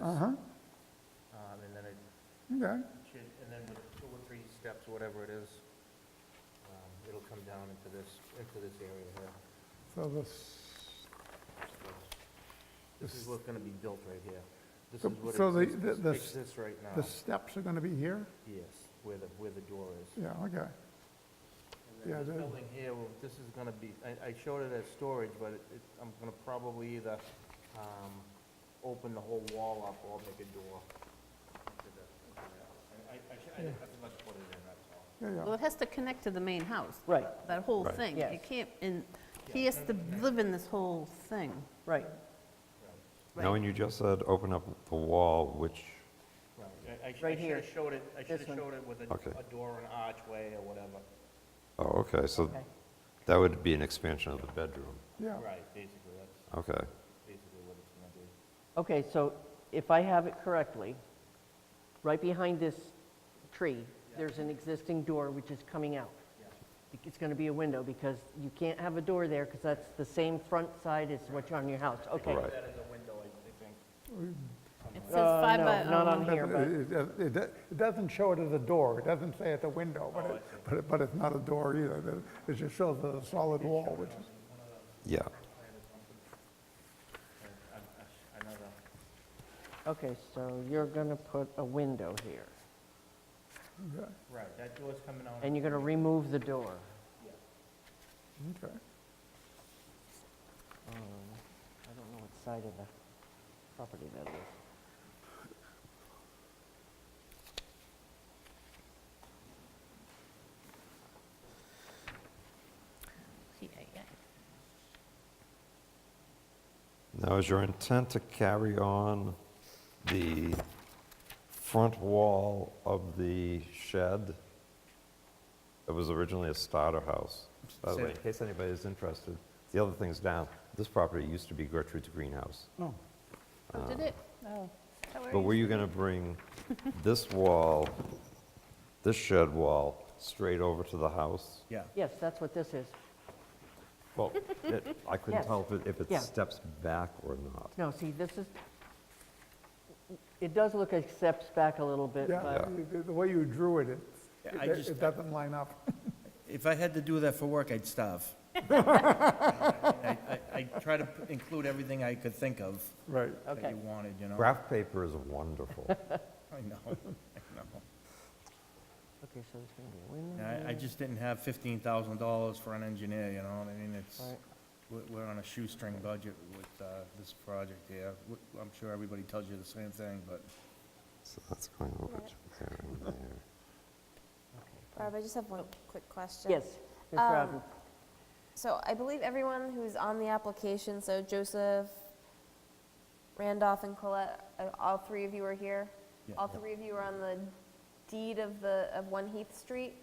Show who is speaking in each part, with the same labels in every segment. Speaker 1: Uh-huh,
Speaker 2: Um, and then it
Speaker 1: okay.
Speaker 2: should, and then with two or three steps, whatever it is, um, it'll come down into this, into this area here.
Speaker 1: So this,
Speaker 2: This is what's gonna be built right here. This
Speaker 1: So-
Speaker 2: is what
Speaker 1: so the-
Speaker 2: exis-
Speaker 1: the- the s-
Speaker 2: exists right now.
Speaker 1: the steps are going to be here?
Speaker 2: Yes, where the, where the door is.
Speaker 1: Yeah, okay.
Speaker 2: And
Speaker 1: yeah,
Speaker 2: then this
Speaker 1: the-
Speaker 2: building here, well, this is gonna be, I, I showed it as storage, but it, it- I'm gonna probably either, um, open the whole wall up or make a door. into the- into the- I, I, I should- I didn't have to much put it in, that's all.
Speaker 1: Yeah,
Speaker 3: Well,
Speaker 1: yeah.
Speaker 3: it has to connect to the main house.
Speaker 4: Right.
Speaker 3: That whole
Speaker 5: Right.
Speaker 3: thing.
Speaker 4: Yes.
Speaker 3: It can't, and he has to live in this whole thing.
Speaker 4: Right,
Speaker 5: Now, when
Speaker 3: Right.
Speaker 5: you just said open up the wall, which,
Speaker 2: Right, I- I sh- I
Speaker 4: Right
Speaker 2: should
Speaker 4: here.
Speaker 2: have showed it, I should
Speaker 4: This
Speaker 2: have
Speaker 4: one.
Speaker 2: showed it with a,
Speaker 5: Okay.
Speaker 2: a door and archway or whatever.
Speaker 5: oh, okay, so
Speaker 4: Okay.
Speaker 5: that would be an expansion of the bedroom.
Speaker 1: yeah.
Speaker 2: Right, basically, that's
Speaker 5: Okay,
Speaker 2: basically what it's gonna be.
Speaker 4: okay, so if I have it correctly, right behind this tree, there's an existing door which is coming out. It's going to be a window because you can't have a door there because that's the same front side as what's on your house, okay?
Speaker 5: right.
Speaker 2: That is a window, I I think.
Speaker 3: It says
Speaker 4: Uh,
Speaker 3: five
Speaker 4: no,
Speaker 3: by,
Speaker 4: not
Speaker 3: oh,
Speaker 1: um,
Speaker 4: on here, but-
Speaker 1: It- It it- it doesn't show it as a door, it doesn't say it's a window, but
Speaker 4: Oh,
Speaker 1: it, but it, but it's not a door either. It- It just shows a solid wall, which is,
Speaker 5: Yeah,
Speaker 2: I- I- Another,
Speaker 4: Okay, so you're going to put a window here,
Speaker 1: okay,
Speaker 2: right, that door's coming out.
Speaker 4: and you're going to remove the door.
Speaker 1: okay.
Speaker 4: Um, I don't know what side of the property that is.
Speaker 3: yeah, yeah.
Speaker 5: now is your intent to carry on the front wall of the shed? It was originally a starter house. By the way, in case anybody is interested, the other thing's down, this property used to be Gertrude's greenhouse.
Speaker 1: Oh,
Speaker 3: Oh, did it? Oh.
Speaker 5: But were you gonna bring this wall, this shed wall, straight over to the house?
Speaker 6: Yeah.
Speaker 4: Yes, that's what this is.
Speaker 5: Well, it- I couldn't
Speaker 4: Yes.
Speaker 5: tell if it, if
Speaker 4: Yeah.
Speaker 5: it steps back or not.
Speaker 4: No, see, this is, it does look like steps back a little bit,
Speaker 1: yeah,
Speaker 4: but
Speaker 1: the- the way you drew it, it,
Speaker 6: Yeah, I
Speaker 1: it
Speaker 6: just-
Speaker 1: it doesn't line up.
Speaker 6: If I had to do that for work, I'd starve. I, I, I try to p- include everything I could think of
Speaker 1: Right.
Speaker 6: that
Speaker 4: Okay.
Speaker 6: you wanted, you know?
Speaker 5: Graph paper is wonderful.
Speaker 6: I know, I know.
Speaker 4: Okay, so there's going to be a window.
Speaker 6: And I, I just didn't have fifteen thousand dollars for an engineer, you know what I mean? It's,
Speaker 4: Right.
Speaker 6: we're, we're on a shoestring budget with, uh, this project here. W- I'm sure everybody tells you the same thing, but
Speaker 5: So that's going over to there and there.
Speaker 7: Barb, I just have one quick question.
Speaker 4: Yes, Ms.
Speaker 7: Um,
Speaker 4: Robin.
Speaker 7: So I believe everyone who's on the application, so Joseph, Randolph, and Colette, uh, all three of you are here?
Speaker 6: Yeah.
Speaker 7: All three of you are on the deed of the, of One Heath Street?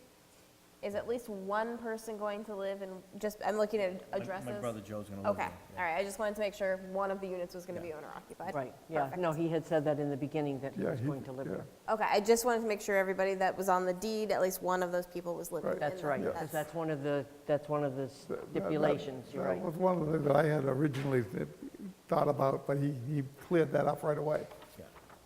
Speaker 7: Is at least one person going to live in, just, I'm looking at
Speaker 6: my-
Speaker 7: addresses?
Speaker 6: my brother Joe's gonna live
Speaker 7: Okay,
Speaker 6: there.
Speaker 7: all right, I just wanted to make sure one of the units was gonna
Speaker 6: Yeah.
Speaker 7: be owner occupied.
Speaker 4: Right, yeah, no, he had said that in the beginning, that he
Speaker 1: Yeah,
Speaker 4: was
Speaker 1: he-
Speaker 4: going to live
Speaker 1: yeah.
Speaker 4: there.
Speaker 7: Okay, I just wanted to make sure everybody that was on the deed, at least one of those people was living in
Speaker 1: Right.
Speaker 7: that.
Speaker 4: That's right, because that's one of the, that's one of the
Speaker 1: That- that- that-
Speaker 4: stipulations, you're right.
Speaker 1: That was one of the things that I had originally th- thought about, but he, he cleared that up right away.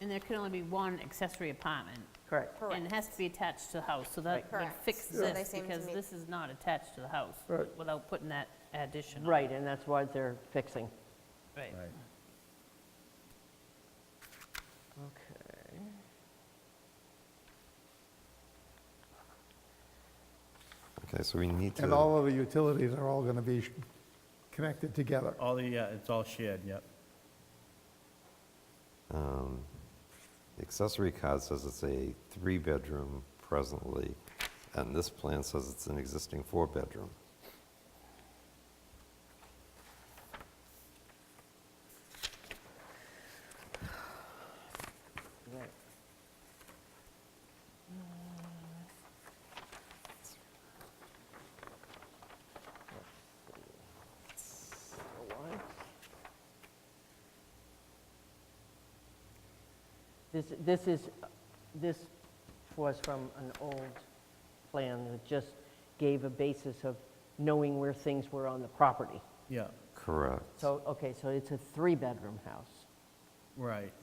Speaker 3: And there can only be one accessory apartment.
Speaker 4: Correct,
Speaker 3: And it has to be attached to the house, so that would
Speaker 7: Correct.
Speaker 3: fix
Speaker 7: So they
Speaker 3: this,
Speaker 7: seem to
Speaker 3: because
Speaker 7: meet-
Speaker 3: this is not attached to the house,
Speaker 1: Right.
Speaker 3: without putting that addition on.
Speaker 4: right, and that's why they're fixing.
Speaker 3: Right.
Speaker 6: Right.
Speaker 4: Okay.
Speaker 5: Okay, so we need
Speaker 1: And
Speaker 5: to,
Speaker 1: all of the utilities are all going to be sh- connected together.
Speaker 6: All the, yeah, it's all shared, yep.
Speaker 5: um, the accessory card says it's a three-bedroom presently, and this plan says it's an existing four-bedroom.
Speaker 4: Right. This, this is, this was from an old plan that just gave a basis of knowing where things were on the property.
Speaker 6: Yeah,
Speaker 5: Correct.
Speaker 4: So, okay, so it's a three-bedroom house.
Speaker 6: right.